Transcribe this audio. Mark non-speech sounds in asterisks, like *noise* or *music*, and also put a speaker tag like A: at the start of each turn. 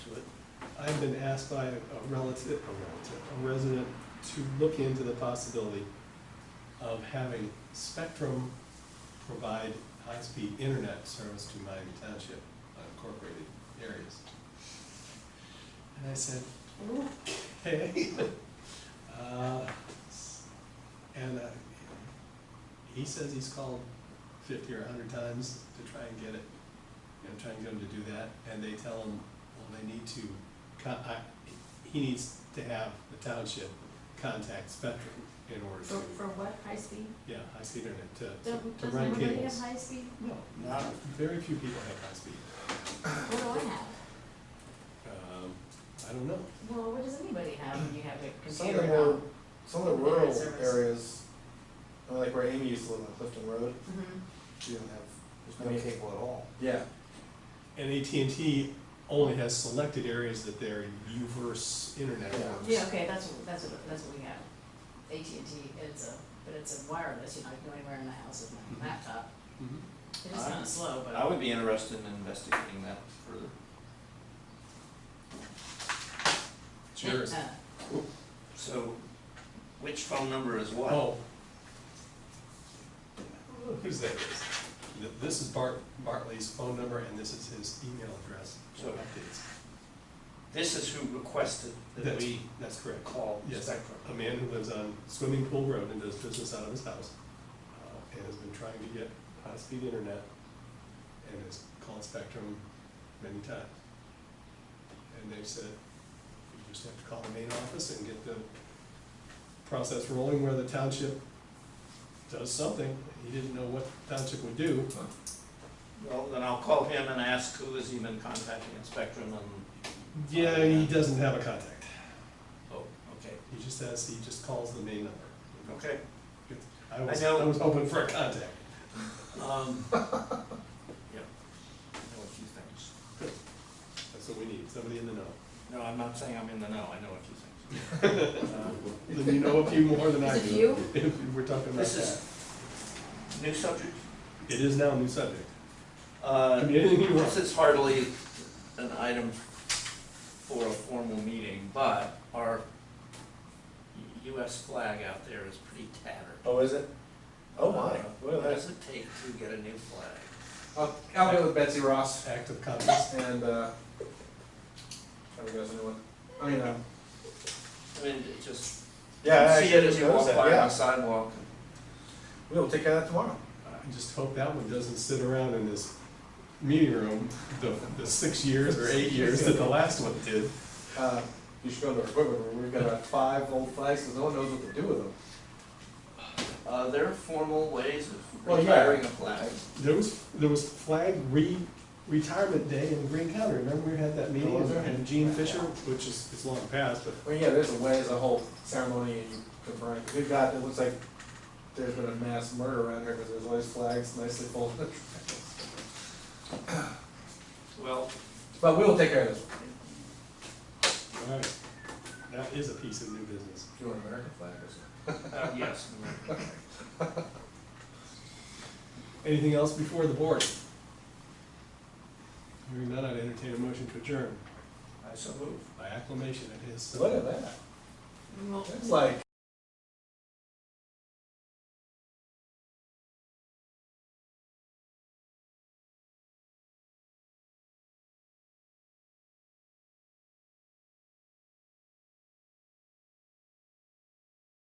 A: I've been asked by a relative, a relative, a resident to look into the possibility of having Spectrum provide high-speed internet service to Miami Township, unincorporated areas. And I said, okay. *laughs* Uh, s- And uh, he says he's called fifty or hundred times to try and get it, you know, try and get him to do that, and they tell him, well, they need to, con- I, he needs to have the township contact Spectrum in order
B: For, for
A: to,
B: what, high speed?
A: yeah, high-speed internet, to-
B: Don't-
A: to, to
B: Does
A: run cables.
B: everybody have high speed?
A: No,
C: No.
A: very few people have high speed.
B: What do I have?
A: Um, I don't know.
B: Well, what does anybody have when you have a
C: Some of the
B: computer
C: more,
B: now?
C: some of the
B: Internet
C: rural
B: service.
C: areas, I mean, like where Amy used to live on Clifton Road,
B: Mhm.
C: you don't have,
D: There's no cable at all.
C: yeah,
A: And AT&T only has selected areas that their UVerse internet
C: Yeah.
A: works.
B: Yeah, okay, that's, what- that's what, that's what we have. AT&T, it's a, but it's a wireless, you know, I can go anywhere in the house with
A: Mhm.
B: my laptop.
A: Mhm.
B: It is kinda slow, *laughs*
E: I
B: but
E: would be interested in investigating that further.
A: It's yours.
B: Uh,
E: So, which phone number is what?
A: Oh. Who's that? Th- This is Bart, Bartley's phone number and this is his email address for
E: So-
A: updates.
E: This is who requested that
A: That's,
E: we
A: that's correct.
E: call
A: Yes.
E: Spectrum.
A: A man who lives on Swimming Pool Road and does business out of his house, uh, and has been trying to get high-speed internet, and has called Spectrum many times. And they've said, you just have to call the main office and get the process rolling where the township does something. He didn't know what township would do.
E: Well, then I'll call him and ask who has he been contacting in Spectrum and,
A: Yeah, he doesn't have a contact.
E: oh, okay,
A: He just says, he just calls the main number.
E: okay.
A: I was,
E: I know-
A: I was hoping for a contact.
E: *laughs* Um, yeah, I know a few things.
A: That's what we need, somebody in the know.
E: No, I'm not saying I'm in the know, I know a few things. Um,
A: *laughs* Then you know a few more than I
B: Is it
A: do. *laughs* If we're talking about
E: This
A: that.
E: is new subject.
A: It is now a new subject.
E: Uh,
A: Could be anything you want.
E: *laughs* This is hardly an item for a formal meeting, but our US flag out there is pretty tattered.
C: oh, is it? Oh my,
E: Uh,
C: look
E: What
C: at
E: does
C: that.
E: it take to get a new flag?
C: I'll, Oh, I'll go with Betsy Ross
A: Act of Congress.
C: and, uh, try to go with anyone, I mean, um,
E: I mean, it just, you
C: yeah, I
E: see it
C: actually
E: as
C: just
E: you walk
C: noticed
E: by
C: that,
E: on the
C: yeah,
E: sidewalk.
C: we'll take care of that tomorrow.
A: I just hope that one doesn't sit around in this meeting room, the, the six years or eight years that the last one did.
C: Uh, you should go to our equipment room, we've got about five old flags, 'cause no one knows what to do with them.
E: Uh, there are formal ways of
C: Well, yeah.
E: retiring a flag.
A: There was, there was flag re, retirement day in Green County, remember we had that meeting?
C: Oh, was there?
A: And Gene Fisher, which is, it's long past, but
C: Well, yeah, there's a way, there's a whole ceremony and you confirm, it. we've got, it looks like there's been a mass murder around here, cause there's always flags nicely folded.
E: Well,
C: But we will take care of this,
A: All right, that is a piece of new business.
C: do you want an American flag or something?
E: uh,
C: *laughs*
E: yes.
A: Anything else before the board? Hearing none, I'd entertain a motion to adjourn
E: I so move.
A: by acclamation, it is.
C: Look at that,
B: well,
C: it's like.